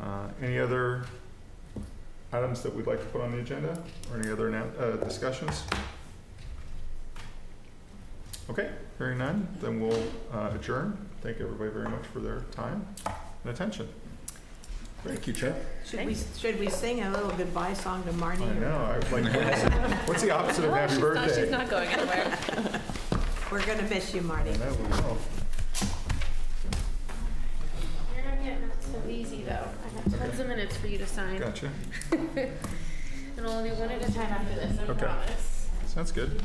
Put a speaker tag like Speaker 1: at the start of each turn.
Speaker 1: Uh, Any other items that we'd like to put on the agenda or any other annou- uh, discussions? Okay, hearing none, then we'll uh, adjourn. Thank everybody very much for their time and attention.
Speaker 2: Thank you, Chad.
Speaker 3: Should we, should we sing a little goodbye song to Marty?
Speaker 1: I know, I was like, what's what's the opposite of happy birthday?
Speaker 4: Oh, not going anywhere.
Speaker 3: We're gonna miss you,
Speaker 1: I
Speaker 3: Marty.
Speaker 1: know, we know.
Speaker 4: You're gonna get not so easy though. I have tons of minutes for you to sign,
Speaker 1: oh, Gotcha,
Speaker 4: and I'll do one at a time after this, I
Speaker 1: Okay.
Speaker 4: promise.
Speaker 1: sounds good.